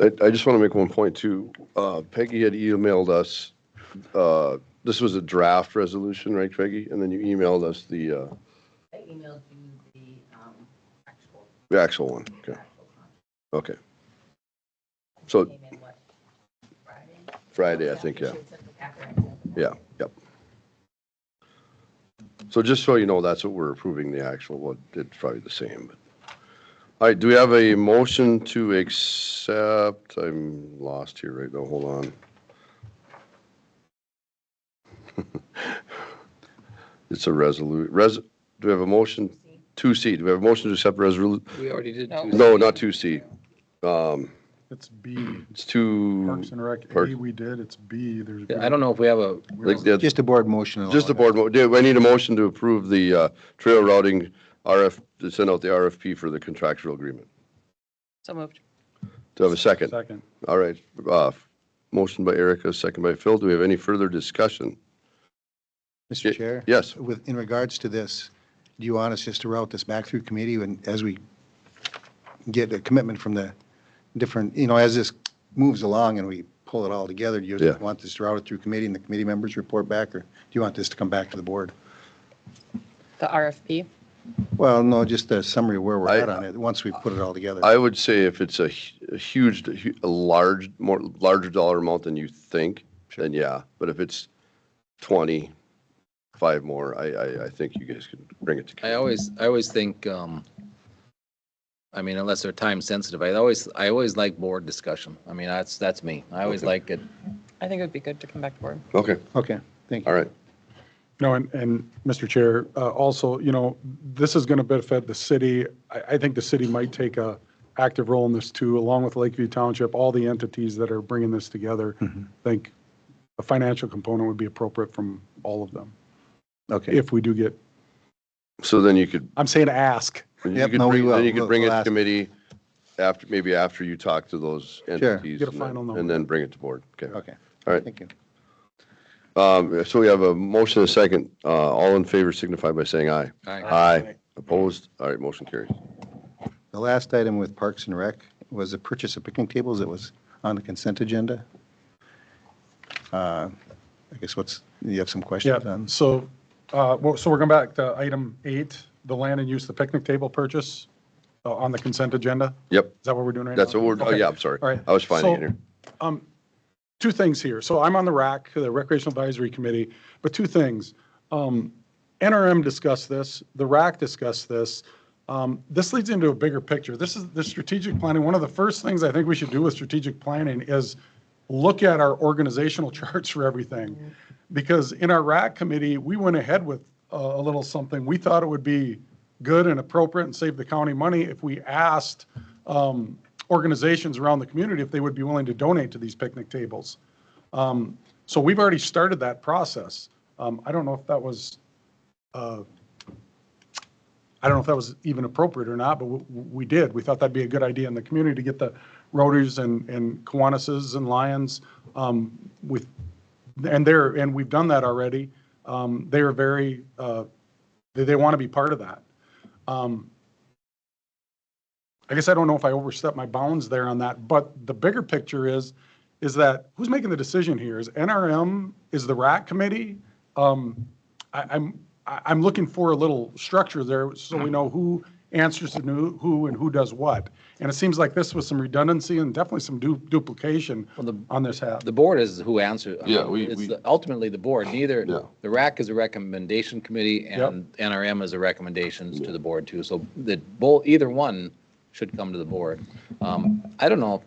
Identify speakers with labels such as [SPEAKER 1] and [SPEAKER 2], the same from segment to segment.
[SPEAKER 1] I, I just want to make one point too. Uh, Peggy had emailed us, uh, this was a draft resolution, right, Peggy? And then you emailed us the, uh,
[SPEAKER 2] I emailed you the, um, actual.
[SPEAKER 1] the actual one. Okay,
[SPEAKER 2] actual contract.
[SPEAKER 1] okay. So
[SPEAKER 2] Came in what, Friday?
[SPEAKER 1] Friday, I think, yeah.
[SPEAKER 2] You should have took the after I sent it.
[SPEAKER 1] Yeah, yep. So just so you know, that's what we're approving, the actual, what, it's probably the same. but All right, do we have a motion to accept, I'm lost here right now, hold on. It's a resolute, res, do we have a motion, two C, do we have a motion to accept resolu,
[SPEAKER 3] We already did
[SPEAKER 4] No.
[SPEAKER 3] two.
[SPEAKER 1] no, not two C. Um,
[SPEAKER 5] It's B,
[SPEAKER 1] it's two.
[SPEAKER 5] Parks and Rec,
[SPEAKER 1] Parks.
[SPEAKER 5] A we did, it's B, there's.
[SPEAKER 3] Yeah, I don't know if we have a,
[SPEAKER 5] we
[SPEAKER 1] Like that-
[SPEAKER 6] Just a board motion. and all
[SPEAKER 1] Just the
[SPEAKER 6] that.
[SPEAKER 1] board, mo- do I need a motion to approve the uh, trail routing RF, to send out the RFP for the contractual agreement?
[SPEAKER 4] So moved.
[SPEAKER 1] Do I have a second?
[SPEAKER 5] Second,
[SPEAKER 1] All right, uh, motion by Erica, second by Phil. Do we have any further discussion?
[SPEAKER 6] Mr. Chair?
[SPEAKER 1] Yes,
[SPEAKER 6] With, in regards to this, do you want us just to route this back through committee and as we get a commitment from the different, you know, as this moves along and we pull it all together, do you
[SPEAKER 1] Yeah.
[SPEAKER 6] want this routed through committee and the committee members report back, or do you want this to come back to the board?
[SPEAKER 4] The RFP.
[SPEAKER 6] Well, no, just a summary of where we're
[SPEAKER 1] I-
[SPEAKER 6] at on it, once we put it all together.
[SPEAKER 1] I would say if it's a hu- a huge, a hu- a large, more, larger dollar amount than you think, then yeah. But if it's 20, five more, I, I, I think you guys can bring it
[SPEAKER 3] I
[SPEAKER 1] to.
[SPEAKER 3] always, I always think, um, I mean, unless they're time sensitive, I always, I always like board discussion. I mean, that's, that's me. I always
[SPEAKER 1] Okay.
[SPEAKER 3] like it.
[SPEAKER 4] I think it would be good to come back to board.
[SPEAKER 1] Okay,
[SPEAKER 6] Okay, thank you.
[SPEAKER 1] all right.
[SPEAKER 5] no, and, and Mr. Chair, uh, also, you know, this is going to benefit the city. I, I think the city might take a active role in this too, along with Lakeview Township, all the entities that are bringing this together.
[SPEAKER 3] Mm-hmm.
[SPEAKER 5] I think a financial component would be appropriate from all of them,
[SPEAKER 6] Okay.
[SPEAKER 5] if we do get,
[SPEAKER 1] So then you could
[SPEAKER 5] I'm saying ask.
[SPEAKER 1] And you
[SPEAKER 6] Yep,
[SPEAKER 1] could
[SPEAKER 6] no, we
[SPEAKER 1] bring-
[SPEAKER 6] will.
[SPEAKER 1] Then you could
[SPEAKER 6] We'll-
[SPEAKER 1] bring it
[SPEAKER 6] we'll
[SPEAKER 1] to
[SPEAKER 6] ask.
[SPEAKER 1] committee after, maybe after you talk to those entities.
[SPEAKER 5] Get a
[SPEAKER 1] and then-
[SPEAKER 5] final number.
[SPEAKER 1] And then bring it to board. Okay.
[SPEAKER 6] Okay,
[SPEAKER 1] All right.
[SPEAKER 6] thank you.
[SPEAKER 1] Um, So we have a motion and a second. Uh, All in favor signify by saying aye.
[SPEAKER 3] Aye.
[SPEAKER 1] Aye. Opposed? All right, motion carries.
[SPEAKER 6] The last item with Parks and Rec was the purchase of picnic tables that was on the consent agenda. Uh, I guess what's, you have some questions
[SPEAKER 5] Yeah,
[SPEAKER 6] on?
[SPEAKER 5] so, uh, well, so we're going back to item eight, the land and use, the picnic table purchase uh, on the consent agenda.
[SPEAKER 1] Yep,
[SPEAKER 5] Is that what we're doing right now?
[SPEAKER 1] that's what we're, oh,
[SPEAKER 5] Okay.
[SPEAKER 1] yeah, I'm sorry.
[SPEAKER 5] All right.
[SPEAKER 1] I was finding it
[SPEAKER 5] So-
[SPEAKER 1] here.
[SPEAKER 5] Two things here. So I'm on the RAC, the Recreational Advisory Committee, but two things. Um, NRM discussed this, the RAC discussed this. Um, This leads into a bigger picture. This is the strategic planning. One of the first things I think we should do with strategic planning is look at our organizational charts for everything. Because in our RAC committee, we went ahead with a a little something. We thought it would be good and appropriate and save the county money if we asked um, organizations around the community if they would be willing to donate to these picnic tables. Um, So we've already started that process. Um, I don't know if that was, uh, I don't know if that was even appropriate or not, but w- w- we did. We thought that'd be a good idea in the community to get the Rotaries and and Kiwanis and Lions um, with, and they're, and we've done that already. Um, They are very, uh, they, they want to be part of that. Um, I guess I don't know if I overstepped my bounds there on that, but the bigger picture is, is that who's making the decision here? Is NRM, is the RAC committee? Um, I, I'm, I- I'm looking for a little structure there so we know who answers to who- who and who does what. And it seems like this was some redundancy and definitely some du- duplication
[SPEAKER 3] Well, the-
[SPEAKER 5] on this half.
[SPEAKER 3] The board is who answers. I
[SPEAKER 1] Yeah,
[SPEAKER 3] mean,
[SPEAKER 1] we-
[SPEAKER 3] it's
[SPEAKER 1] we-
[SPEAKER 3] the- Ultimately, the board, neither,
[SPEAKER 1] Yeah.
[SPEAKER 3] the RAC is a recommendation committee
[SPEAKER 5] Yep.
[SPEAKER 3] and NRM is a recommendations to the board too. So the, both, either one should come to the board. Um, I don't know.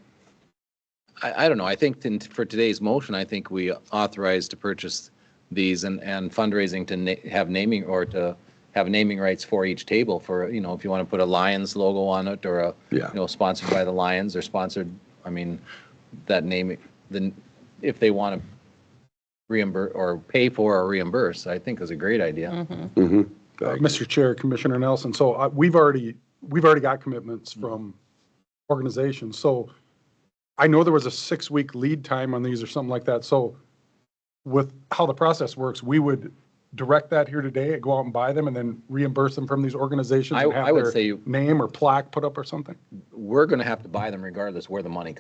[SPEAKER 3] I, I don't know. I think in- for today's motion, I think we authorize to purchase these and, and fundraising to na- have naming or to have naming rights for each table for, you know, if you want to put a Lions logo on it or a, you
[SPEAKER 1] Yeah.
[SPEAKER 3] know, sponsored by the Lions or sponsored, I mean, that name, then if they want to reimburse or pay for or reimburse, I think is a great idea.
[SPEAKER 1] Mm-hmm.
[SPEAKER 5] Mr. Chair, Commissioner Nelson, so uh, we've already, we've already got commitments
[SPEAKER 3] Mm-hmm.
[SPEAKER 5] from organizations. So I know there was a six-week lead time on these or something like that. So with how the process works, we would direct that here today, go out and buy them and then reimburse them from these organizations
[SPEAKER 3] I-
[SPEAKER 5] and have
[SPEAKER 3] I would
[SPEAKER 5] their
[SPEAKER 3] say-
[SPEAKER 5] name or plaque put up or something?
[SPEAKER 3] We're going to have to buy them regardless where the money comes